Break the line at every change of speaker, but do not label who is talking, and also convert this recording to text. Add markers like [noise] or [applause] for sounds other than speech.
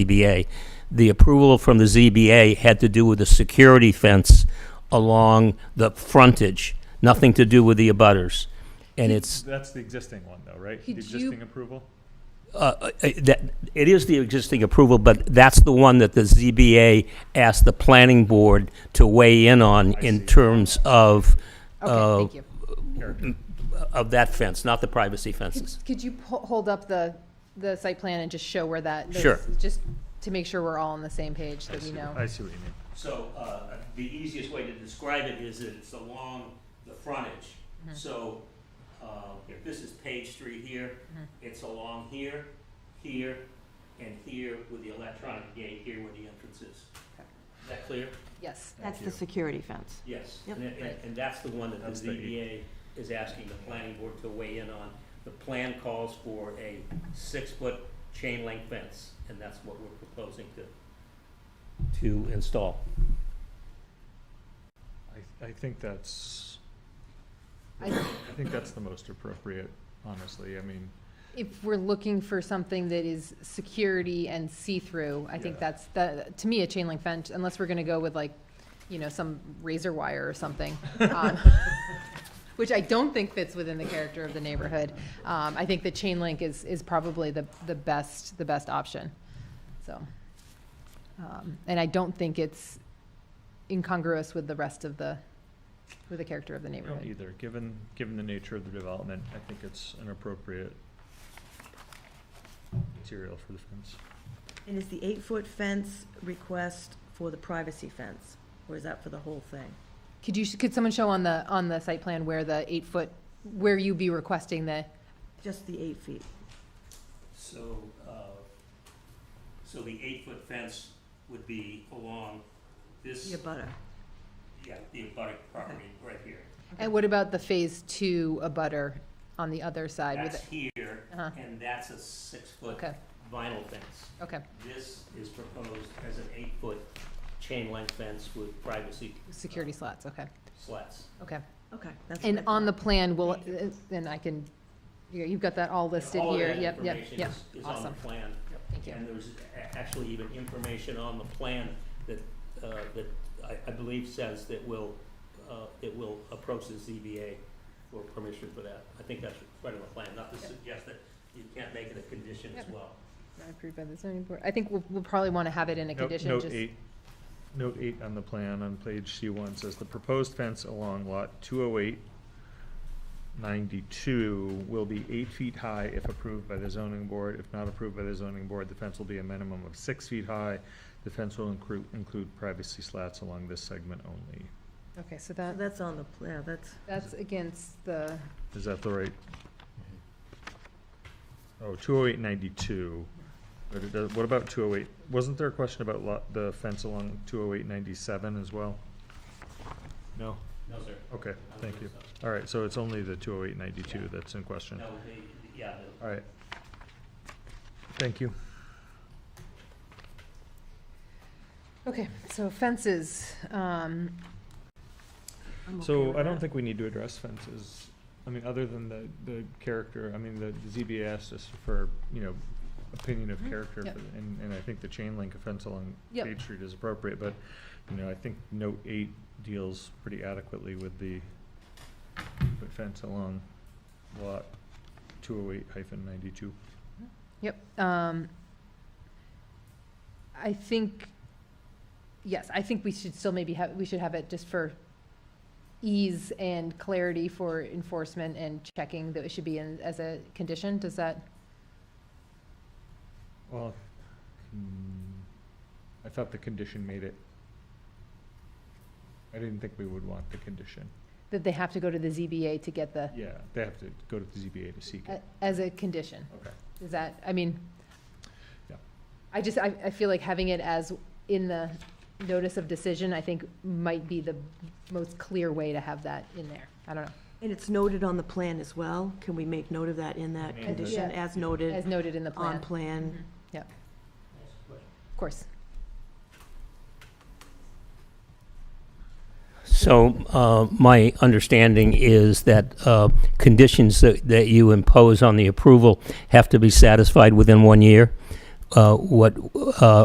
ZBA. The approval from the ZBA had to do with the security fence along the frontage, nothing to do with the abutters. And it's,
That's the existing one though, right? The
Did you-
existing approval?
uh, uh, that, it is the existing approval, but that's the one that the ZBA asked the planning board to weigh in on in terms of,
Okay,
uh,
thank you.
Character.
of that fence, not the privacy fences.
Could you po- hold up the, the site plan and just show where that?
Sure.
those- Just to make sure we're all on the same page, that we know.
I see what you mean.
So uh, the easiest way to describe it is that it's along the frontage. So uh, if this is Page Street here, it's along here, here, and here with the electronic gate here where the entrance is. Is that clear?
Yes.
That's the security fence.
Yes.
Yep.
And- And and that's the one that
That's
the
the-
ZBA is asking the planning board to weigh in on. The plan calls for a six-foot chain link fence, and that's what we're proposing to, to install.
I, I think that's,
I-
I think that's the most appropriate, honestly. I mean,
If we're looking for something that is security and see-through, I think
Yeah.
that's, that, to me, a chain link fence, unless we're gonna go with like, you know, some razor wire
[laughs]
or something. um, Which I don't think fits within the character of the neighborhood. Um, I think the chain link is, is probably the, the best, the best option, so. um, And I don't think it's incongruous with the rest of the, with the character of the
I don't
neighborhood.
either. Given, given the nature of the development, I think it's an appropriate material for the fence.
And is the eight-foot fence request for the privacy fence, or is that for the whole thing?
Could you, could someone show on the, on the site plan where the eight-foot, where you be requesting the,
Just the eight feet?
So, uh, so the eight-foot fence would be along this,
Your butter.
yeah, the abutting property right here.
and what about the phase two abutter on the other side with
That's
it?
here,
Uh-huh.
and that's a six-foot
Okay,
vinyl fence.
okay.
This is proposed as an eight-foot chain link fence with privacy
Security slats, okay,
slats.
okay.
Okay, that's.
And
what I
on the
thought.
plan, will, and I can, you- you've got that all listed
All of
here.
that
Yep, yep,
information
yep.
is- Is on the
Awesome.
plan.
Thank you.
And there's a- actually even information on the plan that, uh, that I, I believe says that will, uh, it will approach the ZBA for permission for that. I think that's part of the plan, not to suggest that you can't make it a condition as
Yep.
well.
Approved by the zoning board. I think we'll, we'll probably want to have it in a
Note-
condition.
Note
just-
eight, note eight on the plan on page C one says the proposed fence along lot 208, 92 will be eight feet high if approved by the zoning board. If not approved by the zoning board, the fence will be a minimum of six feet high. The fence will include, include privacy slats along this segment only.
Okay, so
So
that,
That's on the, pl- yeah, that's,
that's against the,
Is that the right? Oh, two oh eight ninety-two. But it does, what about two oh eight? Wasn't there a question about lot, the fence along two oh eight ninety-seven as well? No?
No, sir.
Okay, thank you. All right, so it's only the two oh eight ninety-two that's in question.
No, they, yeah, the-
All right. Thank you.
okay, so fences. um,
I'm okay
So
with
I don't
that.
think we need to address fences. I mean, other than the, the character, I mean, the ZBA asked us for, you know, opinion of character,
Yep.
for- and, and I think the chain link fence along
Yep.
Page Street is appropriate, but, you know, I think note eight deals pretty adequately with the the fence along lot two oh eight hyphen ninety-two.
Yep. um, I think, yes, I think we should still maybe have, we should have it just for ease and clarity for enforcement and checking that it should be in as a condition. Does that,
Well, hmm, I thought the condition made it. I didn't think we would want the condition.
that they have to go to the ZBA to get the,
Yeah, they have to go to the ZBA to seek
a-
it.
as a condition?
Okay.
Is that, I mean,
Yeah.
I just, I, I feel like having it as in the notice of decision, I think might be the most clear way to have that in there. I don't know,
And it's noted on the plan as well? Can we make note of that in that
Yeah.
condition,
Yeah.
as noted
as noted in the plan,
on plan? Mm-hmm.
that's the question.
of course.
So uh, my understanding is that uh, conditions that that you impose on the approval have to be satisfied within one year. uh, what uh,